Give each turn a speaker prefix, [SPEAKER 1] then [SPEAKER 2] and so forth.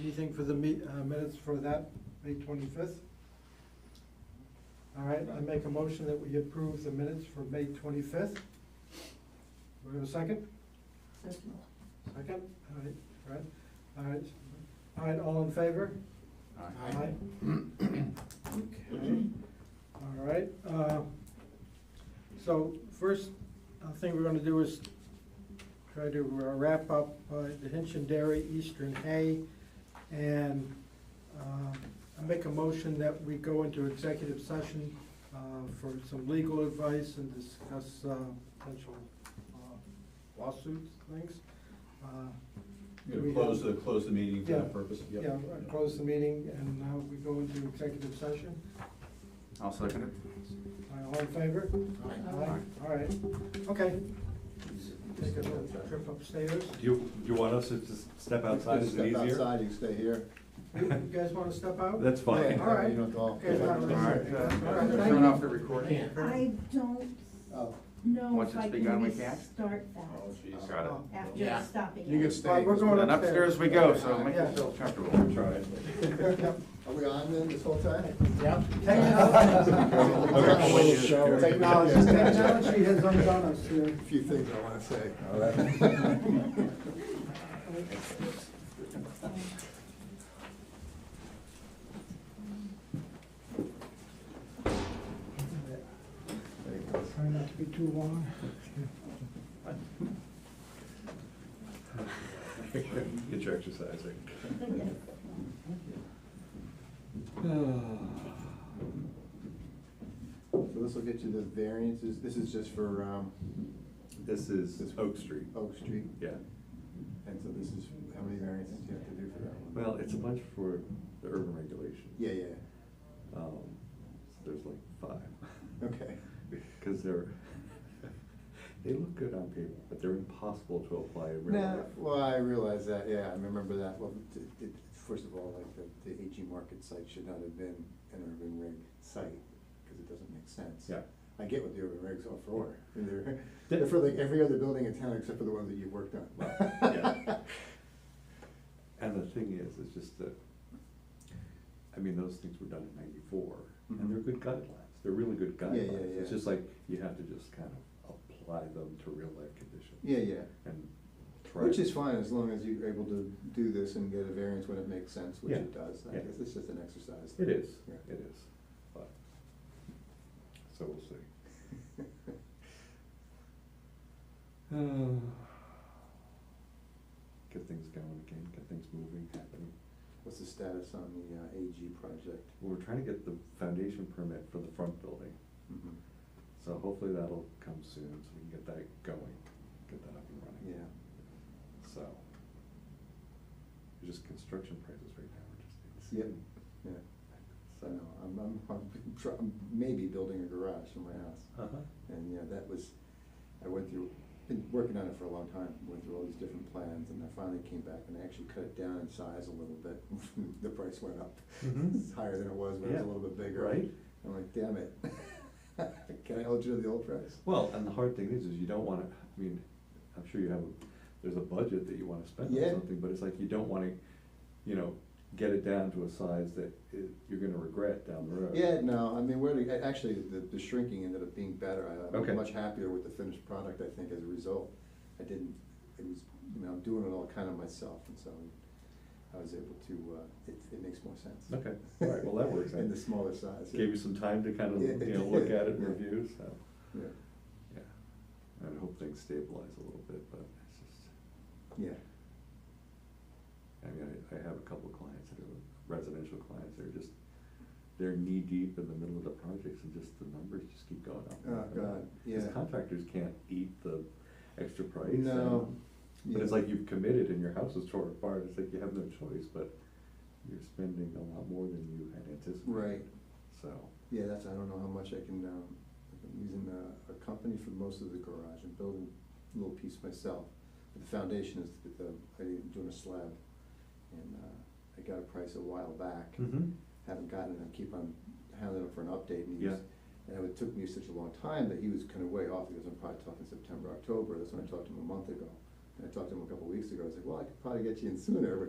[SPEAKER 1] Anything for the me, uh, minutes for that, May twenty-fifth? All right, I make a motion that we approve the minutes for May twenty-fifth. Do we have a second?
[SPEAKER 2] Second.
[SPEAKER 1] Second, all right, all right, all right, all right, all in favor? Aye. Okay, all right, uh, so first uh, thing we're gonna do is try to uh, wrap up uh, the Hinchin Dairy, Eastern Hay, and um, I make a motion that we go into executive session uh, for some legal advice and discuss uh, potential uh, lawsuits, things. Uh,
[SPEAKER 3] You're gonna close the, close the meeting for
[SPEAKER 1] Yeah.
[SPEAKER 3] that purpose? Yep.
[SPEAKER 1] Yeah, I close the meeting and now we go into executive session.
[SPEAKER 4] I'll second it.
[SPEAKER 1] All in favor? Aye. All right, okay. Take a little trip upstairs.
[SPEAKER 5] Do you, do you want us to just step outside, is it
[SPEAKER 6] Step
[SPEAKER 5] easier?
[SPEAKER 6] outside, you stay here.
[SPEAKER 1] You you guys want to step out?
[SPEAKER 5] That's fine.
[SPEAKER 1] Yeah. All right.
[SPEAKER 6] You don't go.
[SPEAKER 1] Okay, not really.
[SPEAKER 4] All right, uh,
[SPEAKER 1] All right,
[SPEAKER 4] turn off
[SPEAKER 1] thank
[SPEAKER 4] the recording.
[SPEAKER 2] I don't
[SPEAKER 6] Oh,
[SPEAKER 2] know
[SPEAKER 4] Want
[SPEAKER 2] if
[SPEAKER 4] you to
[SPEAKER 2] I
[SPEAKER 4] speak out
[SPEAKER 2] can
[SPEAKER 4] of my cat?
[SPEAKER 2] restart
[SPEAKER 3] Oh,
[SPEAKER 2] that
[SPEAKER 3] geez.
[SPEAKER 4] Got it.
[SPEAKER 2] after
[SPEAKER 6] Yeah.
[SPEAKER 2] stopping it.
[SPEAKER 6] You can
[SPEAKER 1] All right,
[SPEAKER 6] stay.
[SPEAKER 1] we're going
[SPEAKER 4] And upstairs we go, so make
[SPEAKER 1] Yeah.
[SPEAKER 4] yourself comfortable.
[SPEAKER 3] Try it.
[SPEAKER 1] Yep.
[SPEAKER 6] Are we on then this whole time?
[SPEAKER 7] Yep.
[SPEAKER 6] Technology- Technology's got you.
[SPEAKER 1] Technology has undone us here.
[SPEAKER 6] A few things I wanna say.
[SPEAKER 1] Try not to be too long.
[SPEAKER 5] Get your exercise in.
[SPEAKER 6] So this will get you the variances, this is just for, um,
[SPEAKER 5] This is Oak Street,
[SPEAKER 6] Oak Street,
[SPEAKER 5] yeah.
[SPEAKER 6] and so this is, how many variances do you have to do for that one?
[SPEAKER 5] Well, it's a bunch for the urban regulations.
[SPEAKER 6] Yeah, yeah,
[SPEAKER 5] Um, so there's like five.
[SPEAKER 6] okay.
[SPEAKER 5] Because they're, they look good on paper, but they're impossible to apply in real
[SPEAKER 6] No,
[SPEAKER 5] life.
[SPEAKER 6] well, I realize that, yeah, I remember that, well, it- it- first of all, like, the, the AG Market site should not have been an urban rig site, because it doesn't make sense.
[SPEAKER 5] Yeah.
[SPEAKER 6] I get what the urban rigs are for, and they're, they're for like every other building in town except for the ones that you've worked on.
[SPEAKER 5] Well, yeah. And the thing is, it's just that, I mean, those things were done in ninety-four, and they're good guidelines, they're really good
[SPEAKER 6] Mm-hmm. Yeah, yeah,
[SPEAKER 5] guidelines. It's
[SPEAKER 6] yeah.
[SPEAKER 5] just like, you have to just kind of apply them to real life conditions.
[SPEAKER 6] Yeah, yeah,
[SPEAKER 5] And try.
[SPEAKER 6] which is fine, as long as you're able to do this and get a variance when it makes sense, which
[SPEAKER 5] Yeah,
[SPEAKER 6] it does, I
[SPEAKER 5] yeah.
[SPEAKER 6] guess it's just an exercise.
[SPEAKER 5] It is,
[SPEAKER 6] Yeah.
[SPEAKER 5] it is, but, so we'll see. Get things going again, get things moving, happening.
[SPEAKER 6] What's the status on the uh, AG project?
[SPEAKER 5] We're trying to get the foundation permit for the front building,
[SPEAKER 6] Mhm.
[SPEAKER 5] so hopefully that'll come soon, so we can get that going, get that up and running.
[SPEAKER 6] Yeah.
[SPEAKER 5] So, it's just construction prices right now are
[SPEAKER 6] Yep,
[SPEAKER 5] just.
[SPEAKER 6] yeah, I
[SPEAKER 5] So.
[SPEAKER 6] know, I'm, I'm, I'm try- I'm maybe building a garage in my house,
[SPEAKER 5] Uh-huh.
[SPEAKER 6] and, yeah, that was, I went through, been working on it for a long time, went through all these different plans, and I finally came back and I actually cut it down in size a little bit, the price went up.
[SPEAKER 5] Mhm.
[SPEAKER 6] It's higher than it was when it was a
[SPEAKER 5] Yeah,
[SPEAKER 6] little bit bigger.
[SPEAKER 5] Right?
[SPEAKER 6] I'm like, damn it, can I hold you to the old price?
[SPEAKER 5] Well, and the hard thing is, is you don't wanna, I mean, I'm sure you have, a there's a budget that you wanna spend on
[SPEAKER 6] Yeah.
[SPEAKER 5] something, but it's like you don't wanna, you know, get it down to a size that it, you're gonna regret down the road.
[SPEAKER 6] Yeah, no, I mean, we're, a- actually, the, the shrinking ended up being better, I-
[SPEAKER 5] Okay.
[SPEAKER 6] I'm much happier with the finished product, I think, as a result. I didn't, it was, you know, I'm doing it all kind of myself, and so I was able to, uh, it, it makes more sense.
[SPEAKER 5] Okay, all right, well, that works
[SPEAKER 6] In
[SPEAKER 5] out.
[SPEAKER 6] the smaller size. yeah.
[SPEAKER 5] Gave you some time to kind of,
[SPEAKER 6] Yeah.
[SPEAKER 5] you know, look at it and
[SPEAKER 6] Yeah.
[SPEAKER 5] review, so,
[SPEAKER 6] Yeah,
[SPEAKER 5] yeah. And I hope things stabilize a little bit, but it's just,
[SPEAKER 6] yeah,
[SPEAKER 5] I mean, I, I have a couple of clients that are residential clients, they're just, they're knee-deep in the middle of the projects and just the numbers just keep going up. and
[SPEAKER 6] Oh,
[SPEAKER 5] up and up.
[SPEAKER 6] God,
[SPEAKER 5] Because
[SPEAKER 6] yeah.
[SPEAKER 5] contractors can't eat the extra price.
[SPEAKER 6] No,
[SPEAKER 5] and- But it's
[SPEAKER 6] yeah.
[SPEAKER 5] like you've committed and your house is torn apart, it's like you have no choice, but you're spending a lot more than you had anticipated.
[SPEAKER 6] Right.
[SPEAKER 5] So,
[SPEAKER 6] yeah, that's, I don't know how much I can, um, I'm using a, a company for most of the garage, I'm building a little piece myself. But the foundation is, um, the, I'm doing a slab, and, uh, I got a price a while back.
[SPEAKER 5] Hmm.
[SPEAKER 6] haven't gotten it, I keep on hounding him for an update, and he was, and it took me such a long time that he was kind of way off, because I'm probably talking September, October, that's when I talked to him a month ago. And I talked to him a couple of weeks ago, I was like, well, I could probably get you in sooner, but